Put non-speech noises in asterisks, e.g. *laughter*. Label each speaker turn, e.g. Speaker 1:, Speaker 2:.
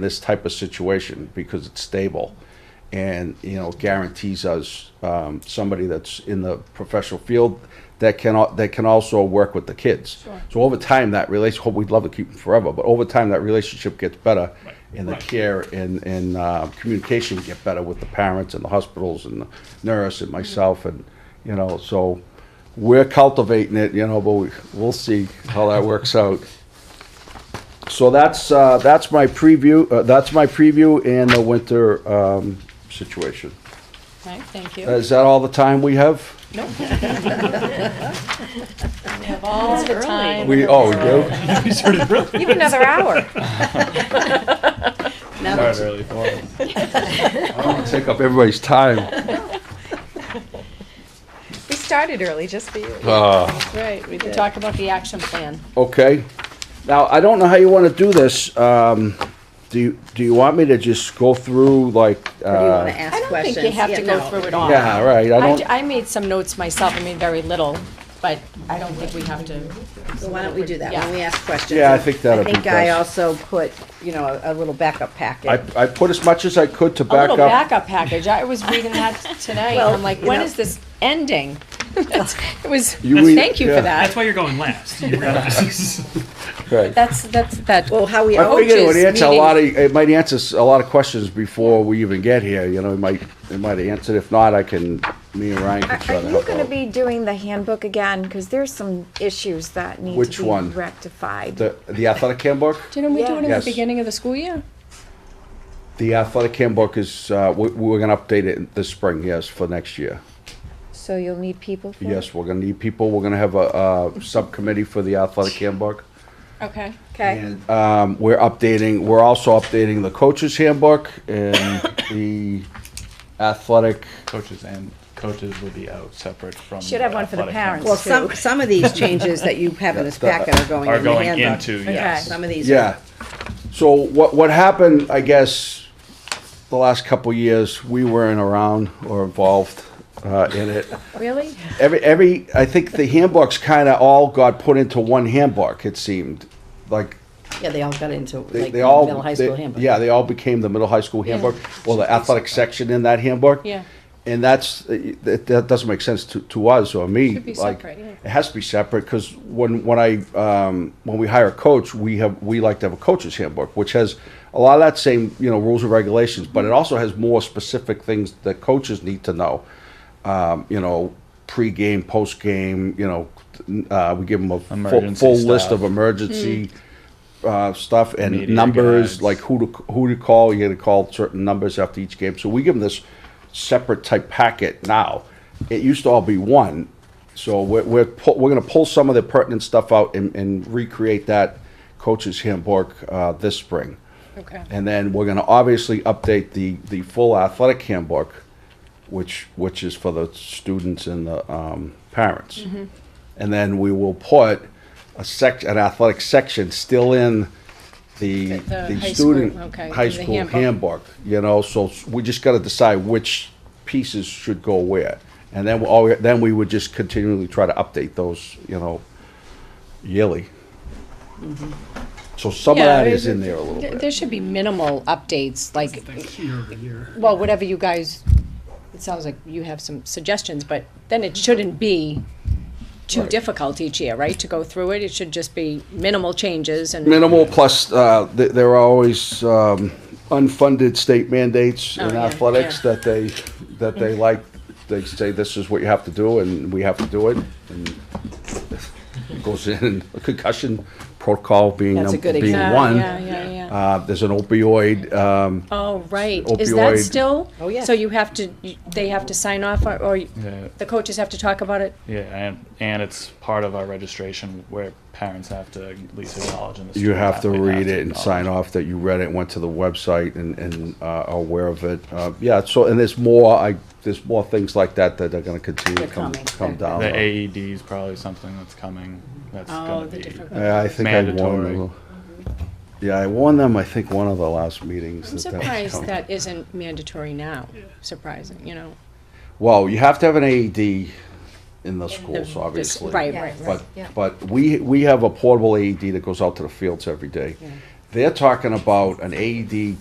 Speaker 1: this type of situation because it's stable and you know guarantees us um, somebody that's in the professional field that can al- that can also work with the kids.
Speaker 2: Sure.
Speaker 1: So over time, that relationship we'd love to keep them forever, but over time that relationship gets better, and the
Speaker 3: Right.
Speaker 1: care and and uh, communication get better with the parents and the hospitals and the nurse and myself and you know so. We're cultivating it, you know, but we, we'll see how that works out. So that's, uh, that's my preview, uh, that's my preview and the winter, um, situation. Uh,
Speaker 2: Okay, thank you.
Speaker 1: Is that all the time we have?
Speaker 2: *laughs* Nope. We have all the
Speaker 4: early.
Speaker 2: time.
Speaker 1: We, oh, we do?
Speaker 3: We started really
Speaker 4: You have
Speaker 1: *laughs*
Speaker 4: another hour.
Speaker 3: started early for it.
Speaker 1: I don't wanna *laughs* Take up everybody's time.
Speaker 4: We started early just for you.
Speaker 1: Uh,
Speaker 2: Right, we can talk about the action plan.
Speaker 1: okay. Now, I don't know how you wanna do this. Um, do you, do you want me to just go through like,
Speaker 5: Or do you want to
Speaker 1: uh?
Speaker 5: ask
Speaker 2: I don't
Speaker 5: questions?
Speaker 2: think you have
Speaker 5: Yeah,
Speaker 2: to go
Speaker 5: no.
Speaker 2: through it all.
Speaker 1: Yeah, right, I
Speaker 2: I,
Speaker 1: don't,
Speaker 2: d- I made some notes myself, I mean, very little, but I don't think we have to.
Speaker 5: So why don't we do that,
Speaker 2: Yeah.
Speaker 5: when we ask questions?
Speaker 1: Yeah, I think that'd be
Speaker 5: I think I
Speaker 1: best.
Speaker 5: also put, you know, a- a little backup
Speaker 1: I,
Speaker 5: packet.
Speaker 1: I put as much as I could to
Speaker 2: A
Speaker 1: back
Speaker 2: little
Speaker 1: up.
Speaker 2: backup package, I was
Speaker 1: *laughs*
Speaker 2: reading that tonight, and I'm like,
Speaker 5: you
Speaker 2: when
Speaker 5: know.
Speaker 2: is this ending? *laughs* It was,
Speaker 1: You read-
Speaker 2: thank you
Speaker 1: yeah.
Speaker 2: for
Speaker 3: That's
Speaker 2: that.
Speaker 3: why you're going last. You realize.
Speaker 1: Right.
Speaker 2: That's, that's, that,
Speaker 5: Well, how we,
Speaker 1: I figured it would
Speaker 2: coaches
Speaker 1: answer a lot of, it might answer s- a lot of questions before we even get here, you know, it might, it might answer, if not, I can, me and Ryan
Speaker 4: Are
Speaker 1: can try
Speaker 4: are
Speaker 1: to
Speaker 4: you
Speaker 1: help
Speaker 4: gonna
Speaker 1: out.
Speaker 4: be doing the handbook again? Because there's some issues that need
Speaker 1: Which
Speaker 4: to be
Speaker 1: one?
Speaker 4: rectified.
Speaker 1: The, the athletic handbook?
Speaker 2: didn't we do it in the
Speaker 1: Yes.
Speaker 2: beginning of the school year?
Speaker 1: The athletic handbook is, uh, we, we're gonna update it this spring, yes, for next year.
Speaker 4: So you'll need people for it?
Speaker 1: Yes, we're gonna need people, we're gonna have a, a subcommittee for the athletic handbook.
Speaker 2: Okay.
Speaker 5: okay,
Speaker 1: And, um, we're updating, we're also updating the coaches handbook and the athletic,
Speaker 3: *laughs* coaches and coaches will be out separate from.
Speaker 4: Should have one for the
Speaker 3: athletic
Speaker 4: parents.
Speaker 5: well, some, some of these changes that you have in this packet are going
Speaker 3: Are
Speaker 5: in the
Speaker 3: going
Speaker 5: handbook.
Speaker 3: into, yes.
Speaker 5: Some of these. are-
Speaker 1: Yeah. So what what happened? I guess the last couple years we weren't around or involved uh, in it.
Speaker 4: Really?
Speaker 1: Every every I think the handbooks kind of all got put into one handbook. It seemed like
Speaker 6: Yeah, they all got into
Speaker 1: they,
Speaker 6: like
Speaker 1: they all
Speaker 6: middle high
Speaker 1: they-
Speaker 6: school handbook.
Speaker 1: Yeah, they all became the middle high school handbook or the athletic section in that handbook.
Speaker 2: Yeah.
Speaker 1: And that's that, that doesn't make sense to, to us or me.
Speaker 2: Should be
Speaker 1: like,
Speaker 2: separate, yeah.
Speaker 1: It has to be separate because when when I um, when we hire a coach, we have we like to have a coach's handbook, which has a lot of that same you know rules and regulations, but it also has more specific things that coaches need to know. Um, you know, pre-game, post-game. You know, uh, we give them a full,
Speaker 3: Emergency
Speaker 1: full list
Speaker 3: stuff.
Speaker 1: of emergency uh, stuff and
Speaker 3: Media
Speaker 1: numbers,
Speaker 3: guides.
Speaker 1: like who to who to call. You got to call certain numbers after each game. So we give them this separate type packet now. It used to all be one. So we're we're, pu- we're going to pull some of the pertinent stuff out and, and recreate that coach's handbook uh, this spring.
Speaker 2: Okay.
Speaker 1: And then we're going to obviously update the the full athletic handbook, which which is for the students and the um, parents. And then we will put a sec an athletic section still in the
Speaker 2: The- the
Speaker 1: the
Speaker 2: high
Speaker 1: student
Speaker 2: school, okay,
Speaker 1: high
Speaker 2: the
Speaker 1: school
Speaker 2: handbook.
Speaker 1: handbook. You know, so s- we just got to decide which pieces should go where, and then we all then we would just continually try to update those. You know, yearly. So some
Speaker 2: Mm-hmm. Yeah,
Speaker 1: of that
Speaker 2: it-
Speaker 1: is in there a little
Speaker 2: There
Speaker 1: bit.
Speaker 2: there should be minimal updates, like, well, whatever you guys, it sounds like you have some suggestions, but then it shouldn't be too
Speaker 1: Right.
Speaker 2: difficult each year, right, to go through it? It should just be minimal changes and,
Speaker 1: minimal plus uh, th- there are always um, unfunded state mandates in
Speaker 2: Oh, yeah,
Speaker 1: athletics that they that they like they say this is what you have to do and we have to do it and it goes in a concussion protocol being
Speaker 6: That's a
Speaker 1: num-
Speaker 6: good
Speaker 1: being
Speaker 6: example.
Speaker 1: one
Speaker 2: Yeah, yeah, yeah, yeah.
Speaker 1: Uh, there's an opioid um,
Speaker 2: oh, right. Is that
Speaker 1: Opioid.
Speaker 2: still?
Speaker 5: Oh, yeah.
Speaker 2: So you have to, you- they have to sign off, or- or you-
Speaker 3: Yeah.
Speaker 2: the coaches have to talk about it?
Speaker 3: Yeah, and, and it's part of our registration where parents have to at least acknowledge in the
Speaker 1: you
Speaker 3: student
Speaker 1: have to
Speaker 3: athlete
Speaker 1: read it and
Speaker 3: acknowledge.
Speaker 1: sign off that you read it, went to the website and, and uh, are aware of it. Uh, yeah, so, and there's more, I, there's more things like that that are gonna continue
Speaker 6: They're
Speaker 1: to come,
Speaker 6: coming.
Speaker 1: come
Speaker 6: They're-
Speaker 1: down.
Speaker 3: The AED is probably something that's coming. That's
Speaker 2: Oh,
Speaker 3: gonna
Speaker 2: the
Speaker 3: be.
Speaker 2: different-
Speaker 1: Yeah, Uh, I think I warned
Speaker 3: Mandatory.
Speaker 1: them. Yeah, I warned them, I think, one of the last meetings.
Speaker 2: I'm
Speaker 1: that that was
Speaker 2: surprised
Speaker 1: coming.
Speaker 2: that isn't mandatory now, surprising, you know?
Speaker 1: Well, you have to have an AED in the schools,
Speaker 2: this-
Speaker 1: obviously.
Speaker 2: right, right, right,
Speaker 1: But, but we, we have a portable AED that goes out to the fields every day. They're talking about an AED